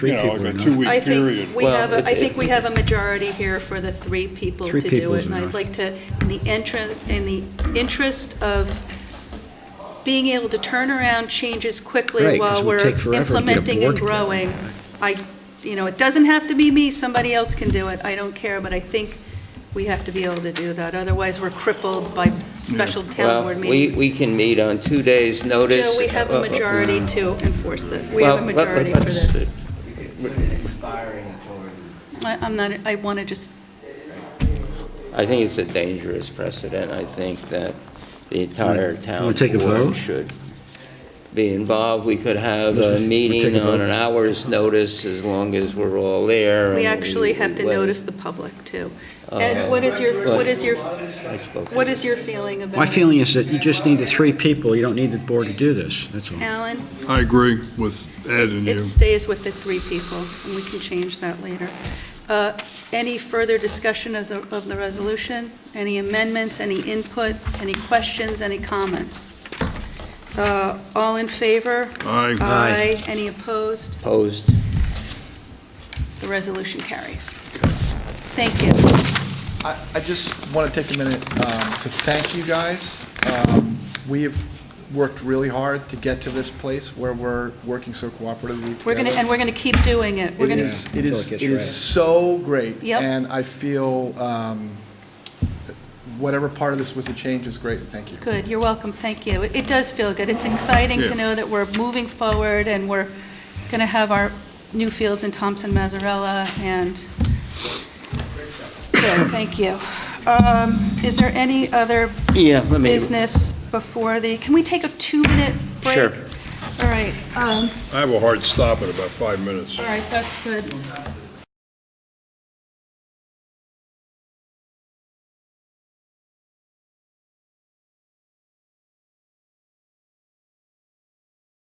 you three know, people or like a not. two-week I period. think we Well, have, a- I it- think we have a majority here for the three people Three to do people's it. And I'd enough. like to, in the entrance, in the interest of being able to turn around changes Right, quickly 'cause while it would we're take forever to get a implementing and board together. growing. I, you know, it doesn't have to be me, somebody else can do it, I don't care, but I think we have to be able to do that. Otherwise, we're crippled by special town board Well, meetings. we, we can meet on two days' notice. Joe, we have Uh, a uh, majority to enforce that. We have a Well, let- let- majority for let's- this. Put an expiring authority. I- I'm not, I want to just I think it's a dangerous precedent. I think that the entire town Wanna take a vote? board should be involved. We could have Let's- a let's meeting take a on vote. an hour's notice as long as we're all there. We and actually have to wait. notice the public, too. Oh. And what is your, what is your, I spoke. what is your feeling about? My feeling is that you just need the three people, you don't need the board to do this, that's all. Alan, I agree with Ed and it you. stays with the three people, and we can change that later. Uh, Any further discussion as of of the resolution? Any amendments, any input, any questions, any comments? Uh, All in favor? Aye. Aye. Aye. Any opposed? Opposed. The resolution carries. Thank you. I I just want to take a minute um, to thank you guys. Um, We have worked really hard to get to this place where we're working so cooperatively together. We're going to, and we're going to keep doing it. We're It going to is, it Until it is, gets it right. is so great. Yep. And I feel um, whatever part of this was a change is great, and thank you. Good, you're welcome, thank you. It it does feel good. It's exciting Yeah. to know that we're moving forward, and we're going to have our new fields in Thompson, Mazzarella, and, good, thank you. Um, Is there any other Yeah, let me, business before the, can we take a two-minute break? Sure. All right, um, I have a hard stop in about five minutes. all right, that's good.